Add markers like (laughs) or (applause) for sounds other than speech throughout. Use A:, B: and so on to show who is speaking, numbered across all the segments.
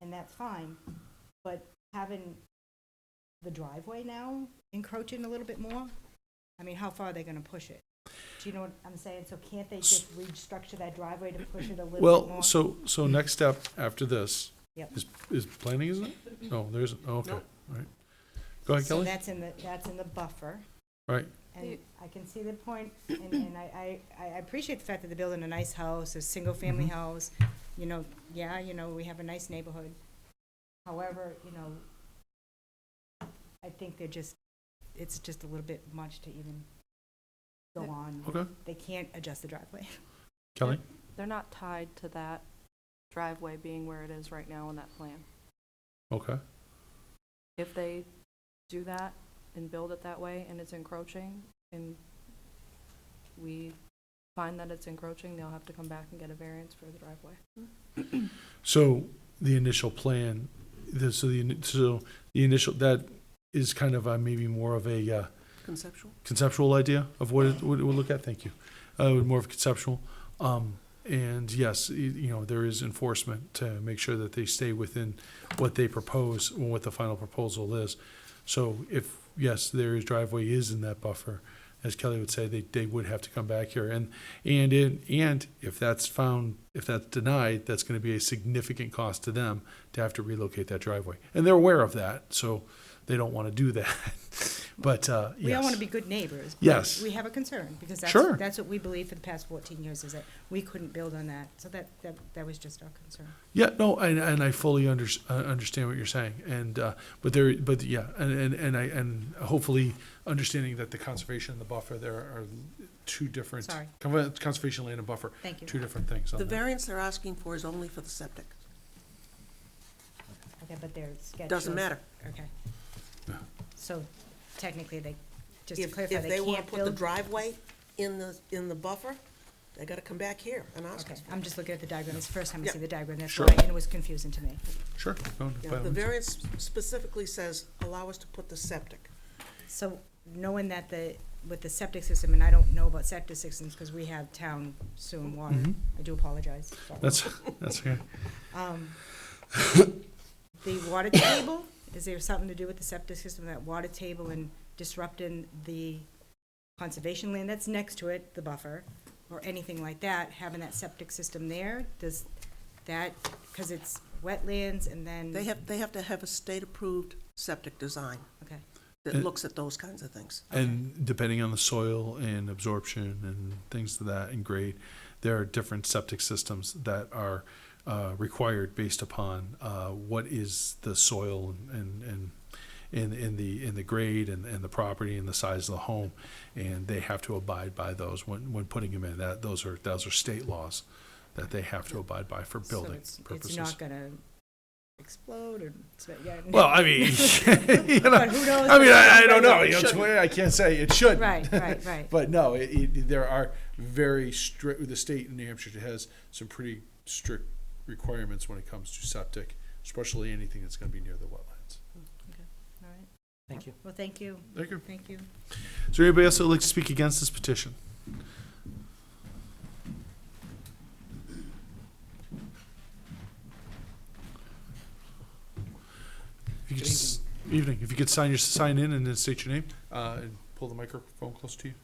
A: and that's fine. But having the driveway now encroaching a little bit more, I mean, how far are they gonna push it? Do you know what I'm saying? So can't they just restructure that driveway to push it a little bit more?
B: Well, so, so next step after this
A: Yep.
B: is, is planning, isn't it? No, there isn't. Oh, Okay, all right. Go ahead,
A: So
B: Kelly.
A: that's in the, that's in the buffer.
B: Right.
A: And I can see the point, and, and I, I, I appreciate the fact that they're building a nice house, a single-family
B: Mm-hmm.
A: house. You know, yeah, you know, we have a nice neighborhood. However, you know, I think they're just, it's just a little bit much to even go on.
B: Okay,
A: They can't adjust the driveway. (laughs)
B: Kelly.
C: They're not tied to that driveway being where it is right now on that plan.
B: Okay,
C: If they do that and build it that way and it's encroaching and we find that it's encroaching, they'll have to come back and get a variance for the driveway.
B: so the initial plan, the, so the, ini- so the initial, that is kind of a, maybe more of a, uh,
D: Conceptual?
B: conceptual idea of what it would look at. Thank you. Uh, more of conceptual. Um, and yes, y- you know, there is enforcement to make sure that they stay within what they propose and what the final proposal is. So if, yes, their driveway is in that buffer, as Kelly would say, they, they would have to come back here. And, and in, and if that's found, if that's denied, that's gonna be a significant cost to them to have to relocate that driveway. And they're aware of that, so they don't wanna do that. (laughs) But, uh, yes.
A: We all wanna be good neighbors. but
B: Yes.
A: We have a concern, because
B: Sure.
A: that's, that's what we believe for the past fourteen years, is that we couldn't build on that. So that, that, that was just our concern.
B: Yeah, no, and, and I fully under, uh, understand what you're saying, and uh, but there, but yeah, and, and, and I and hopefully understanding that the conservation and the buffer there are two different.
A: Sorry.
B: con- Conservation land and buffer,
A: Thank you.
B: two different things. on
D: The
B: that.
D: variance they're asking for is only for the septic.
A: Okay, but their schedule.
D: Doesn't matter.
A: Okay. So technically, they, just to
D: If,
A: clarify,
D: if
A: they
D: they wanna
A: can't
D: put the
A: build.
D: driveway in the, in the buffer, they gotta come back here and ask
A: Okay,
D: us.
A: I'm just looking at the diagram. It's the first time I see
D: Yeah.
A: the diagram. That's
B: Sure.
A: why, and it was confusing to me.
B: Sure. go on,
D: Now,
B: by all
D: the
B: means.
D: variance specifically says, allow us to put the septic.
A: Mm. So knowing that the, with the septic system, and I don't know about septic systems because we have town sewer and water.
B: Mhm.
A: I do apologize. sorry.
B: That's (laughs) that's okay. (laughs)
A: Um, The water table, is there something to do with the septic system, that water table and disrupting the conservation land that's next to it, the buffer, or anything like that, having that septic system there, does that, because it's wetlands and then.
D: They have, they have to have a state-approved septic design
A: Okay,
D: that
B: And-
D: looks at those kinds of things.
B: And depending on the soil and absorption and things to that and grade, there are different septic systems that are uh, required based upon uh, what is the soil and and in in the in the grade and, and the property and the size of the home, and they have to abide by those when when putting them in. That those are those are state laws that they have to abide by for
A: so
B: building
A: it's, it's
B: purposes.
A: not gonna explode or, so, yeah.
B: well, I mean, (laughs) you know,
A: But who knows?
B: I mean, I, I don't know.
A: It
B: You know, it's
A: shouldn't.
B: weird. I can't say it should.
A: Right, right, right.
B: (laughs) But no, it, it, there are very strict, the state in New Hampshire has some pretty strict requirements when it comes to septic, especially anything that's gonna be near the wetlands.
A: All right.
E: Thank you.
A: (laughs) Well, thank you,
B: Thank you.
A: thank you.
B: Is there anybody else that would like to speak against this petition? If you could s- Evening, if you could sign your, sign in and then state your name, uh, and pull the microphone close to you.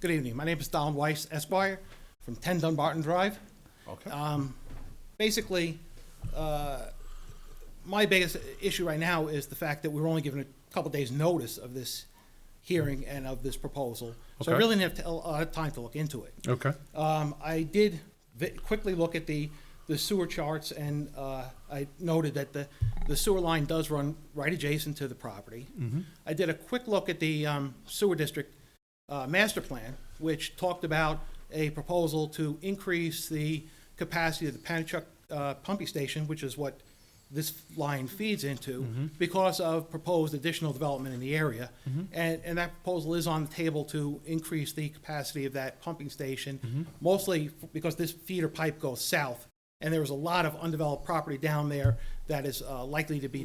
E: Good evening. My name is Don Weiss Esquire from 10 Dunbarton Drive.
B: Okay.
E: Um, basically, uh, my biggest issue right now is the fact that we were only given a couple days' notice of this hearing and of this proposal. So I
B: Okay.
E: really didn't have to, a lot of time to look into it.
B: Okay,
E: Um, I did vi- quickly look at the, the sewer charts and, uh, I noted that the, the sewer line does run right adjacent to the property. I did a quick look at the, um, sewer district, uh, master plan, which talked about a proposal to increase the capacity of the Panachuk, uh, pumping station, which is what this line feeds into, because of proposed additional development in the area. And, and that proposal is on the table to increase the capacity of that pumping station, mostly f- because this feeder pipe goes south. And there is a lot of undeveloped property down there that is uh, likely to be